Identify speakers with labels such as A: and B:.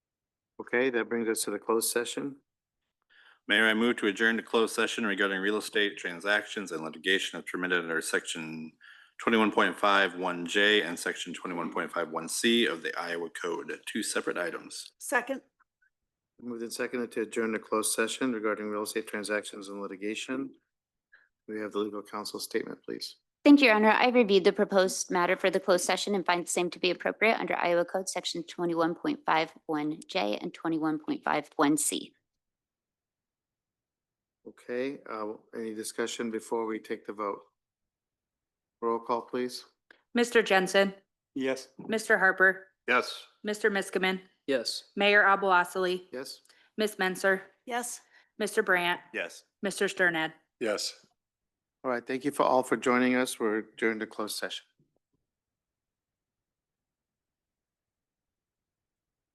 A: Okay, that brings us to the closed session.
B: Mayor, I move to adjourn to closed session regarding real estate transactions and litigation as permitted under section twenty-one point five one J and section twenty-one point five one C of the Iowa Code, two separate items.
C: Second,
A: Moved and seconded to adjourn the closed session regarding real estate transactions and litigation. We have the legal counsel statement, please.
D: Thank you, Your Honor. I reviewed the proposed matter for the closed session and find the same to be appropriate under Iowa Code Section 21.51J and 21.51C.
A: Okay, uh, any discussion before we take the vote? Roll call, please.
E: Mr. Jensen,
F: Yes.
E: Mr. Harper,
B: Yes.
E: Mr. Miskman,
F: Yes.
E: Mayor Abalosely,
A: Yes?
E: Ms. Menser,
C: yes.
E: Mr. Brandt,
B: Yes.
E: Mr. Sternad.
F: Yes.
A: All right, thank you for all for joining us. We're adjourned to closed session.